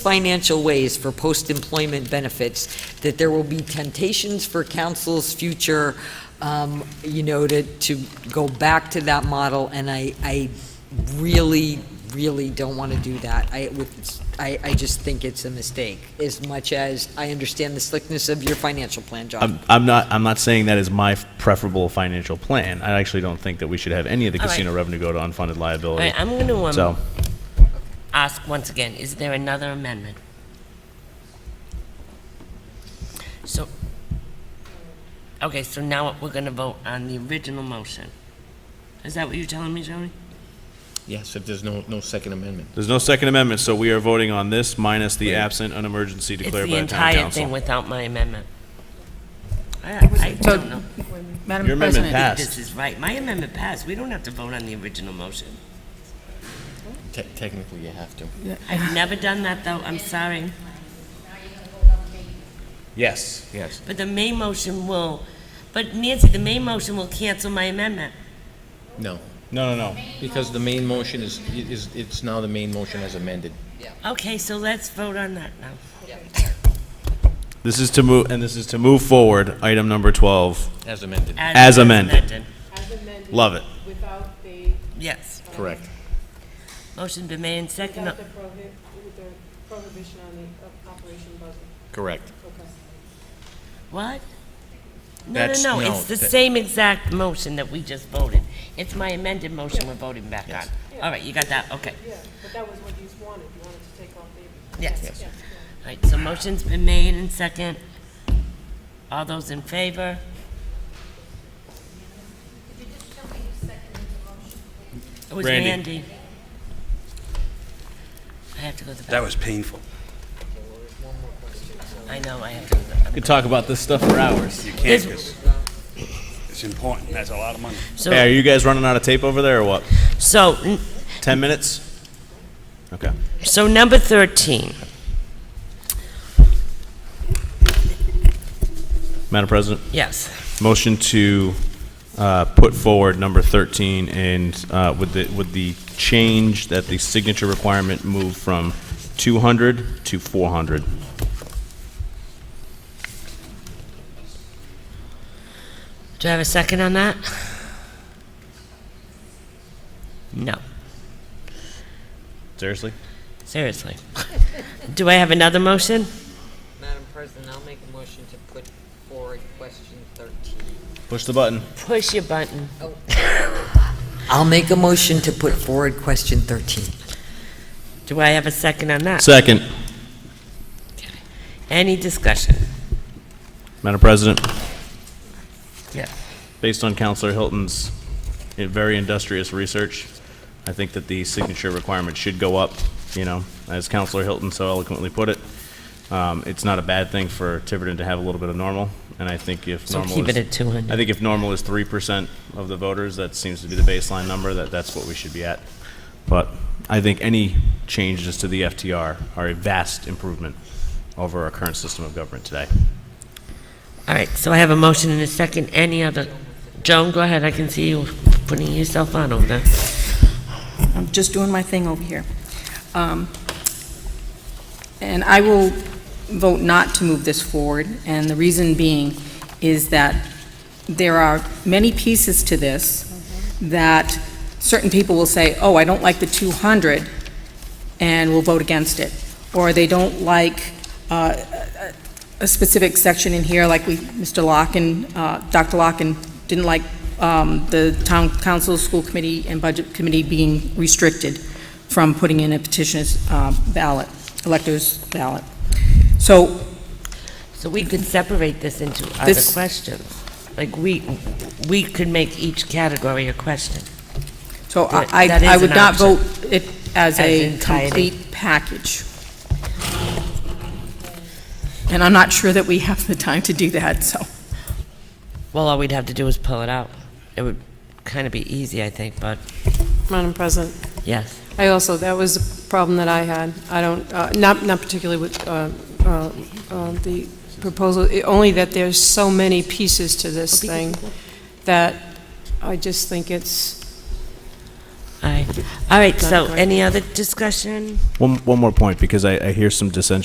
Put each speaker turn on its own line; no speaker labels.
financial ways for post-employment benefits, that there will be temptations for council's future, um, you know, to, to go back to that model, and I, I really, really don't want to do that. I, with, I, I just think it's a mistake, as much as I understand the slickness of your financial plan, John.
I'm, I'm not. I'm not saying that is my preferable financial plan. I actually don't think that we should have any of the
All right.
casino revenue go to unfunded
All
liability.
right, I'm going to
so
um, ask once again, is there another amendment? So, okay, so now we're going to vote on the original motion. Is that what you're telling me, Joni?
Yes, if there's no, no second amendment.
there's no second amendment. So we are voting on this minus the absent an emergency
It's
declared
the
by the town
entire
council.
thing without my amendment. I I don't know
Your
Madam
amendment
President,
if this
passed.
is right. My amendment passed. We don't have to vote on the original motion.
Te- Technically, you have to.
I've never done that, though. I'm sorry.
Yes. Yes.
But the main motion will, but Nancy, the main motion will cancel my amendment.
No,
No. No. No.
because the main motion is, is, it's now the main motion as amended.
Okay, so let's vote on that now.
This is to move, and this is to move forward. Item number twelve.
As amended.
As amended.
As amended.
Love it.
Without the,
Yes.
Correct.
Motion been made and seconded.
without the prohi- with the prohibition on the uh, operation budget.
Correct.
Okay.
What? No, no,
That's-
no,
no,
it's the
that-
same exact motion that we just voted. It's my amended motion we're voting back on. All right, you got that? Okay.
Yeah, but that was what you wanted. You wanted to take off the.
Yes.
Yeah.
All right, so motion's been made and second. All those in favor? It was
Randy.
Randy. I have to go to the
That
bathroom.
was painful.
I know, I have to go to the bathroom.
We could talk about this stuff for hours.
You
There's-
can't, 'cause it's important, that's a lot of money.
Hey, are
So,
you guys running out of tape over there, or what?
so, n-
Ten minutes. Okay.
so number 13.
Madam President.
Yes.
Motion to uh, put forward number 13 and uh, with the, with the change that the signature requirement move from 200 to 400.
Do I have a second on that? No,
Seriously?
seriously. Do I have another motion?
Madam President, I'll make a motion to put forward question 13.
Push the button.
Push your button.
I'll make a motion to put forward question 13.
Do I have a second on that?
Second.
Any discussion?
Madam President,
Yeah.
based on Counselor Hilton's eh, very industrious research, I think that the signature requirement should go up, you know, as Counselor Hilton so eloquently put it. Um, It's not a bad thing for Tiverton to have a little bit of normal, and I think if
So
normal
keep
is-
it at two
I
hundred.
think if normal is three percent of the voters, that seems to be the baseline number, that that's what we should be at. But I think any changes to the FTR are a vast improvement over our current system of government today.
All right, so I have a motion and a second. Any other? Joan, go ahead. I can see you putting yourself on over there.
I'm just doing my thing over here. Um, And I will vote not to move this forward, and the reason being is that there are many pieces to this that certain people will say, oh, I don't like the 200, and will vote against it. Or they don't like uh, a a specific section in here, like we, Mr. Locken, uh, Dr. Locken didn't like um, the town council, school committee, and budget committee being restricted from putting in a petitioner's uh, ballot, elector's ballot. So
So we could separate this into other
This-
questions. Like, we, we could make each category a question.
So
That-
I,
that
I
is
I would
an
not
option.
vote it
As
as a
entirety.
complete package. And I'm not sure that we have the time to do that, so.
Well, all we'd have to do is pull it out. It would kind of be easy, I think, but,
Madam President,
yes.
I also, that was a problem that I had. I don't, uh, not, not particularly with uh, uh, uh, the proposal, i- only that there's so many pieces to this thing that I just think it's,
All right.
All right, so
Not going.
any other discussion?
One, one more point, because I, I hear some dissension